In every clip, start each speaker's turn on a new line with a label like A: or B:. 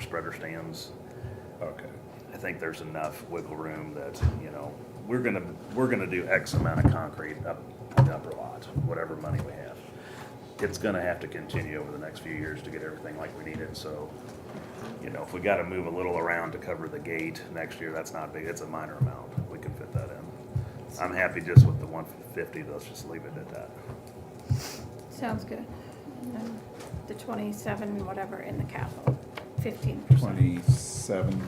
A: spreader stands.
B: Okay.
A: I think there's enough wiggle room that, you know, we're gonna, we're gonna do X amount of concrete up the upper lot, whatever money we have. It's gonna have to continue over the next few years to get everything like we need it, so, you know, if we gotta move a little around to cover the gate next year, that's not big, it's a minor amount, we can fit that in. I'm happy just with the one fifty, let's just leave it at that.
C: Sounds good. And then The twenty-seven, whatever, in the capital, fifteen percent.
B: Twenty-seven,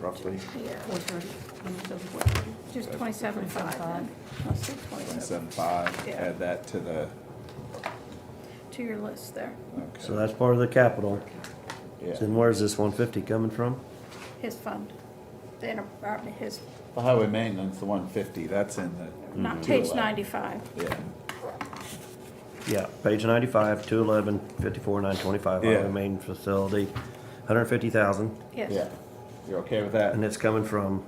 B: roughly,
C: Yeah,
D: Four thirty, when it says four thirty.
C: just twenty-seven five then. Let's do twenty-seven,
B: twenty-seven-five,
C: Yeah.
B: add that to the,
C: to your list there,
B: okay.
E: So that's part of the capital.
B: Yeah.
E: Then where's this one fifty coming from?
C: his fund, the inter, or his,
B: The highway maintenance, the one fifty, that's in Mm-hmm. the.
C: not page
B: 211.
C: ninety-five.
B: Yeah,
E: Yeah, page ninety-five, two eleven, fifty-four, nine twenty-five,
B: Yeah.
E: highway main facility, hundred fifty thousand,
B: yeah.
C: Yes,
B: You're okay with that?
E: and it's coming from,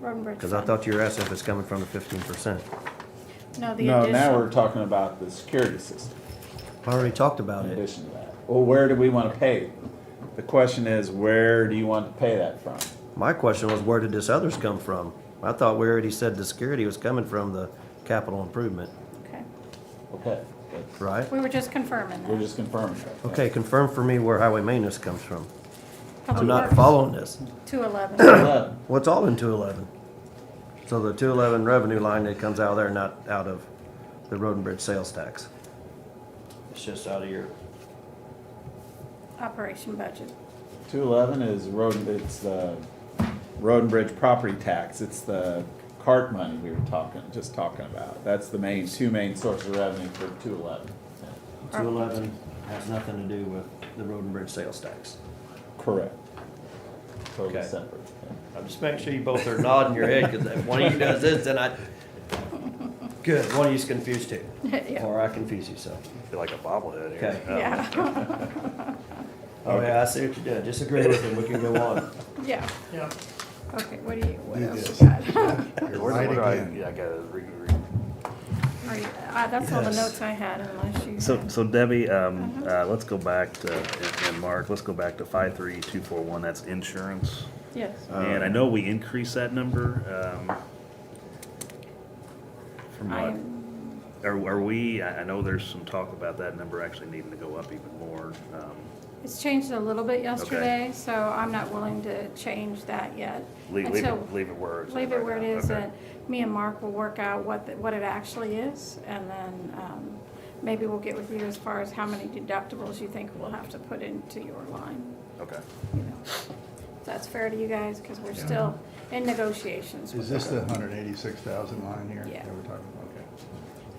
C: road and bridge
E: cause I
C: fund.
E: thought you were asking if it's coming from the fifteen percent.
C: No, the
B: No, now we're
C: additional,
B: talking about the security system
E: I already talked about
B: in
E: it.
B: addition to that. Well, where do we want to pay? The question is, where do you want to pay that from?
E: My question was, where did this others come from? I thought we already said the security was coming from the capital improvement,
C: okay.
B: Okay, that's-
E: right?
C: We were just confirming
B: we're
C: that.
B: just confirming. that.
E: Okay, confirm for me where highway maintenance comes from. I'm
C: Public
E: not
C: works,
E: following this.
C: 211.
B: Eleven.
E: What's all in two eleven? So the two eleven revenue line that comes out of there, not out of the road and bridge sales tax? It's just out of your.
C: operation budget.
B: Two eleven is road, it's the road and bridge property tax, it's the cart money we were talking, just talking about. That's the main, two main sources of revenue for two eleven.
E: Two eleven has nothing to do with the road and bridge sales tax.
B: Correct. Totally
E: Okay.
B: separate.
E: I'm just making sure you both are nodding your head, cause if one of you does this, then I. Good, one of you's confused too,
C: Yeah,
E: or I confuse you, so.
A: Feel like a bobblehead here. Um,
E: Okay.
C: yeah,
E: Oh yeah, I see what you're doing, disagree with him, we can go on.
C: yeah.
F: Yeah.
C: Okay, what do you, what
F: Do
C: else
F: this.
C: you got?
F: You're
A: Where do-
F: right
A: where do I-
F: again.
A: Yeah, I gotta re, re,
C: Are you- uh, That's all the
F: Yes.
C: notes I had unless you.
A: So,
C: had-
A: so Debbie, um, uh, let's go back to, and- and Mark, let's go back to five three two four one, that's insurance.
C: Yes,
A: And I know we increased that number, um, from
C: I
A: what,
C: am,
A: are, are we, I, I know there's some talk about that number actually needing to go up even more. Um,
C: it's changed a little bit yesterday, so I'm not willing to change that yet.
A: Leave,
C: And
A: leave
C: so
A: it, leave it where it's. at
C: Leave it
A: right
C: where it
A: now.
C: is,
A: Okay.
C: and me and Mark will work out what, the- what it actually is, and then um, maybe we'll get with you as far as how many deductibles you think we'll have to put into your line.
A: Okay.
C: you know. If That's fair to you guys, because we're still in negotiations. with
F: Is this the hundred eighty-six thousand line here?
C: Yeah.
F: that we're talking about? Okay.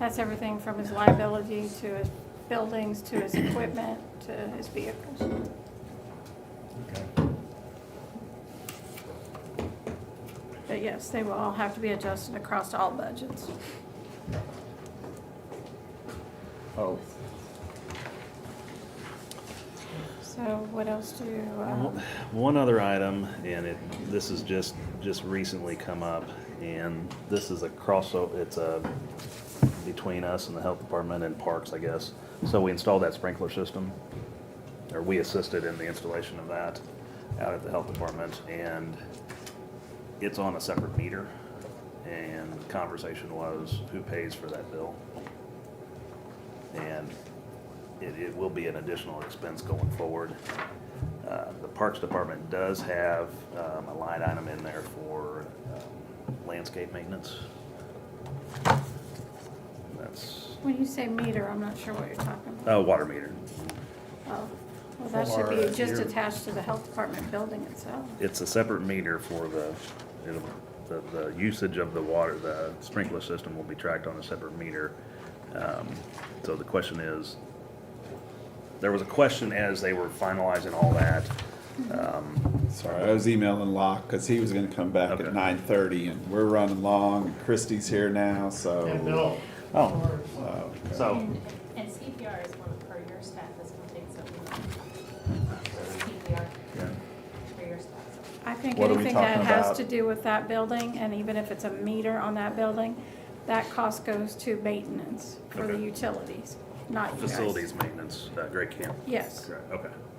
C: That's everything from his liability to his buildings, to his equipment, to his vehicles.
F: Okay.
C: But yes, they will all have to be adjusted across all budgets.
B: Oh,
C: So what else do, um,
A: One other item, and it, this has just, just recently come up, and this is a crossover, it's a, between us and the health department and parks, I guess. So we installed that sprinkler system, or we assisted in the installation of that out at the health department, and it's on a separate meter. And the conversation was, who pays for that bill? And it, it will be an additional expense going forward. Uh, The Parks Department does have um, a line item in there for um, landscape maintenance. That's,
C: when you say meter, I'm not sure what you're talking about.
A: uh, water meter.
C: Oh, Well, that should
F: Or
C: be just
F: your-
C: attached to the health department building itself.
A: It's a separate meter for the, it'll, the, the usage of the water, the sprinkler system will be tracked on a separate meter. Um, So the question is, there was a question as they were finalizing all that. um,
B: sorry, I was emailing Locke, cause he was gonna come back
A: Okay.
B: at nine thirty, and we're running long, and Christie's here now, so.
F: And Bill.
A: Oh,
B: Oh, okay.
A: so,
G: And and CPR is one, for your staff, is one thing that we CPR
B: Yeah.
G: for your staff.
C: I think
B: What are we
C: anything that
B: talking
C: has
B: about?
C: to do with that building, and even if it's a meter on that building, that cost goes to maintenance for the
A: Okay.
C: utilities, not you guys.
A: facilities maintenance, uh, Great Camp.
C: Yes,
A: Correct, okay.